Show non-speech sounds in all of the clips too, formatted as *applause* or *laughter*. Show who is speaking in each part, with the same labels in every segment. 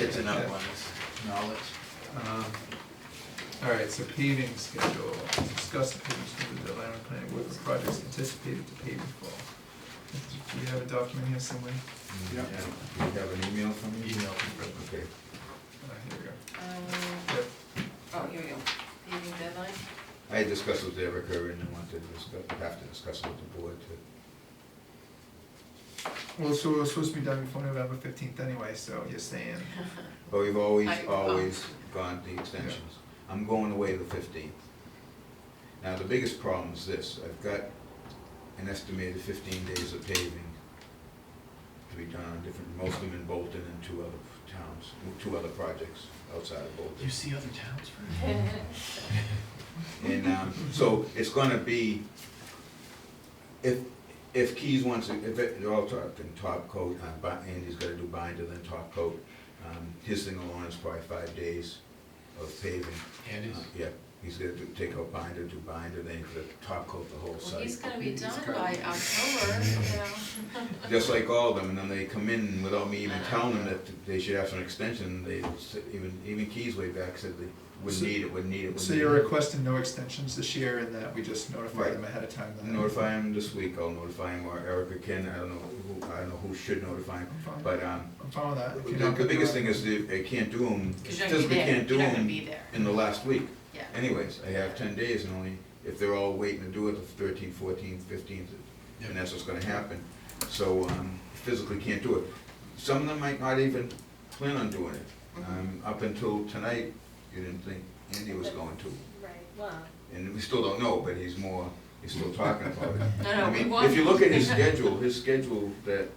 Speaker 1: It's enough
Speaker 2: Okay.
Speaker 1: on knowledge.
Speaker 2: Um, All right, so paving schedule, discuss the paving schedule deadline and planning board for projects anticipated to pave in fall. Do you have a document here somewhere?
Speaker 3: Yeah.
Speaker 4: You have an email from you?
Speaker 1: Email.
Speaker 4: Okay.
Speaker 2: Uh, here we go.
Speaker 3: Um,
Speaker 2: Yep,
Speaker 3: Oh, here we go, paving deadline,
Speaker 4: I had discussed with Eric Irvin and wanted to discuss, have to discuss it with the board to,
Speaker 2: well, so it was supposed to be done before November fifteenth anyway, so you're saying,
Speaker 4: but we've always,
Speaker 3: I- oh.
Speaker 4: always gone the extensions. I'm going away the fifteenth. Now, the biggest problem is this, I've got an estimated fifteen days of paving to be done on different, most of them in Bolton and two other towns, two other projects outside of Bolton.
Speaker 1: You see other towns for it?
Speaker 4: And um, so it's gonna be, if, if Keys wants, to- if it, they're all talking top coat, uh, bi- Andy's gotta do binder, then top coat. Um, His thing alone is probably five days of paving.
Speaker 1: And it's,
Speaker 4: Uh, Yeah, he's gonna do- take out binder, do binder, then he's gonna top coat the whole
Speaker 3: *laughs* well, he's
Speaker 4: site.
Speaker 3: gonna be
Speaker 2: He's
Speaker 3: done
Speaker 2: got-
Speaker 3: by October, you know.
Speaker 4: Just like all of them, and then they come in without me
Speaker 3: Uh,
Speaker 4: even telling them that they should have some extension, they, s- even, even Keys way back said they would
Speaker 2: So-
Speaker 4: need it, would need it, would need it.
Speaker 2: so you're requesting no extensions this year and that we just notify them ahead of time
Speaker 4: I'll
Speaker 2: then?
Speaker 4: Notify him this week, I'll notify him, or Erica can, I don't know who, I don't know who should notify him,
Speaker 2: I'm fine,
Speaker 4: but, um,
Speaker 2: I'm fine with that. If
Speaker 4: the
Speaker 2: you're not
Speaker 4: the
Speaker 2: gonna do
Speaker 4: biggest
Speaker 2: it-
Speaker 4: thing is if I can't do them,
Speaker 3: Cause you're
Speaker 4: because
Speaker 3: not gonna
Speaker 4: we
Speaker 3: be there,
Speaker 4: can't do
Speaker 3: you're not gonna
Speaker 4: them
Speaker 3: be there,
Speaker 4: in the last week.
Speaker 3: yeah.
Speaker 4: Anyways, I have ten days and only, if they're all waiting to do it, the thirteenth, fourteenth, fifteenth, and that's what's gonna happen. So, um, physically can't do it. Some of them might not even plan on doing it. Um, up until tonight, you didn't think Andy was going to.
Speaker 5: Right, well,
Speaker 4: and we still don't know, but he's more, he's still talking about it.
Speaker 3: *laughs* No, no,
Speaker 4: I
Speaker 3: we
Speaker 4: mean,
Speaker 3: want-
Speaker 4: If you look at his schedule, his schedule that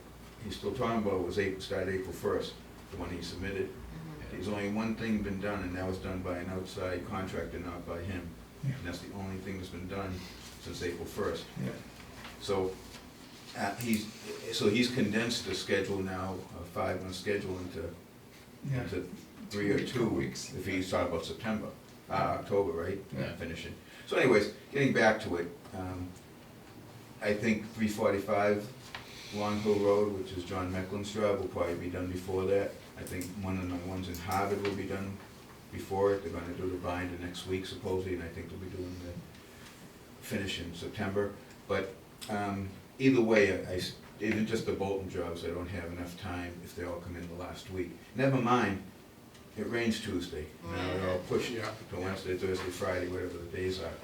Speaker 4: he's still talking about was April, started April first, the one he submitted.
Speaker 3: Mhm.
Speaker 4: There's only one thing been done, and that was done by an outside contractor, not by him.
Speaker 2: Yeah.
Speaker 4: And that's the only thing that's been done since April first.
Speaker 2: Yeah,
Speaker 4: So, uh, he's, so he's condensed the schedule now, a five-month schedule into,
Speaker 2: yeah.
Speaker 4: into three or two
Speaker 2: weeks.
Speaker 4: weeks, if he's talking about September, uh, October, right?
Speaker 2: Yeah.
Speaker 4: finishing. So anyways, getting back to it, um, I think three forty-five Long Hill Road, which is John Mecklen's drive, will probably be done before that. I think one of the ones in Harvard will be done before it, they're gonna do the binder next week supposedly, and I think they'll be doing the finish in September. But, um, either way, I- I, s- even just the Bolton jobs, I don't have enough time if they all come in the last week. Never mind, it rains Tuesday,
Speaker 3: Mm.
Speaker 4: now they're all pushed
Speaker 1: Yeah.
Speaker 4: to Wednesday, Thursday, Friday, whatever the days are.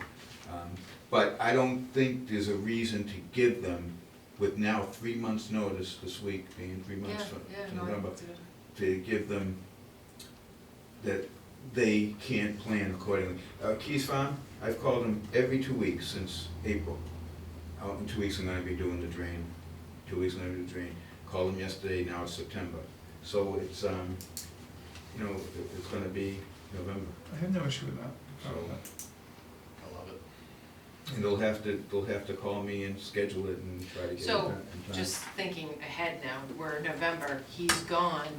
Speaker 4: Um, But I don't think there's a reason to give them, with now three months' notice this week, being three
Speaker 3: Yeah,
Speaker 4: months from
Speaker 3: yeah,
Speaker 4: to
Speaker 3: no, I
Speaker 4: November,
Speaker 3: do it.
Speaker 4: to give them that they can't plan accordingly. Uh, Keys Farm, I've called them every two weeks since April. Out in two weeks, I'm gonna be doing the drain, two weeks, I'm gonna do the drain. Called them yesterday, now it's September. So it's, um, you know, it- it's gonna be November.
Speaker 2: I have no issue with that.
Speaker 4: So-
Speaker 1: I love it.
Speaker 4: And they'll have to, they'll have to call me and schedule it and try to get it
Speaker 3: So,
Speaker 4: done. in time.
Speaker 3: Just thinking ahead now, we're in November, he's gone,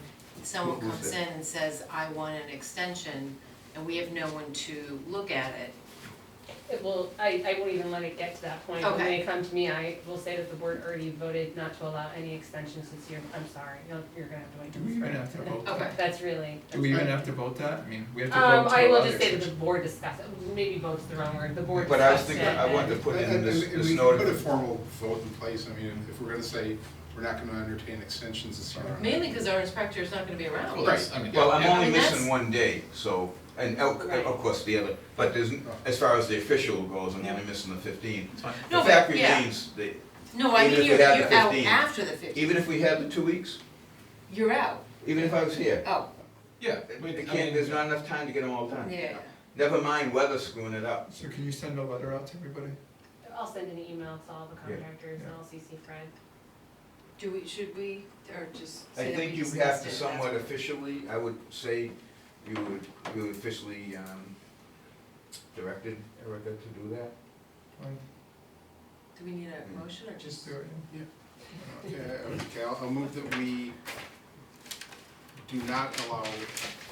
Speaker 3: someone
Speaker 4: Who- who's
Speaker 3: comes in
Speaker 4: that?
Speaker 3: and says, I want an extension, and we have no one to look at it.
Speaker 5: it will, I, I won't even let it get to that point. When
Speaker 3: Okay.
Speaker 5: they come to me, I will say that the board already voted not to allow any extensions this year. I'm sorry, you'll- you're gonna have to wait
Speaker 2: Do
Speaker 5: till
Speaker 2: we
Speaker 5: the
Speaker 2: even
Speaker 5: spring.
Speaker 2: have to vote that?
Speaker 3: Okay.
Speaker 5: That's really.
Speaker 2: Do we even
Speaker 5: that's-
Speaker 2: have to vote that? I mean, we have to
Speaker 5: Um,
Speaker 2: vote to
Speaker 5: I will
Speaker 2: allow
Speaker 5: just
Speaker 2: the
Speaker 5: say that the
Speaker 2: extension.
Speaker 5: board discussed, maybe vote's the wrong word, the board
Speaker 4: But I was
Speaker 5: discussed it.
Speaker 4: thinking, I wanted to put in
Speaker 6: And- and-
Speaker 4: this,
Speaker 6: and
Speaker 4: this
Speaker 6: we can Put a
Speaker 4: notice.
Speaker 6: formal vote in place, I mean, if we're gonna say, we're not gonna entertain extensions this year.
Speaker 3: Mainly because our inspector is not gonna be around.
Speaker 1: Well, that's, I mean,
Speaker 4: Well, I'm
Speaker 1: yeah,
Speaker 4: only
Speaker 3: And that's-
Speaker 4: missing one day, so, and oh, of,
Speaker 5: Right.
Speaker 4: of course the other, but there's, as far as the official goes, I'm only missing the fifteen.
Speaker 1: it's fine.
Speaker 3: No,
Speaker 4: The
Speaker 3: but-
Speaker 4: fact
Speaker 3: yeah.
Speaker 4: remains, that
Speaker 3: No, I
Speaker 4: Even
Speaker 3: mean,
Speaker 4: if
Speaker 3: you're,
Speaker 4: we had
Speaker 3: you're
Speaker 4: the
Speaker 3: out
Speaker 4: 15.
Speaker 3: after the fifteen,
Speaker 4: even if we had the two weeks,
Speaker 3: you're out,
Speaker 4: even if I was here,
Speaker 3: oh,
Speaker 1: Yeah. we-
Speaker 4: it can't,
Speaker 1: I mean,
Speaker 4: there's not enough time to get them all
Speaker 3: yeah,
Speaker 4: done.
Speaker 3: yeah.
Speaker 4: Never mind weather screwing it up.
Speaker 2: So can you send a letter out to everybody?
Speaker 5: I'll send an email to all the
Speaker 4: Yeah,
Speaker 5: contractors and
Speaker 2: yeah.
Speaker 5: I'll CC Fred.
Speaker 3: do we, should we, or just say
Speaker 4: I
Speaker 3: that we
Speaker 4: think you have
Speaker 3: discussed
Speaker 4: to
Speaker 3: it, that's
Speaker 4: somewhat
Speaker 3: what-
Speaker 4: officially, I would say, you would, you would officially, um, directed Erica to do that.
Speaker 2: Fine,
Speaker 3: Do we need
Speaker 4: Mm.
Speaker 3: a motion or just?
Speaker 2: Just do it. yeah.
Speaker 6: Okay, uh, okay, I'll, I'll move that we do not allow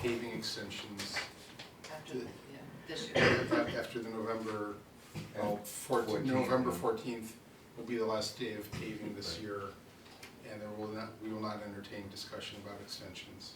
Speaker 6: paving extensions
Speaker 3: After, the- yeah, this year.
Speaker 6: after the November,
Speaker 4: Oh,
Speaker 6: fourteenth,
Speaker 4: 14th.
Speaker 6: November fourteenth will be the last day of paving this year, and there will not, we will not entertain discussion about extensions.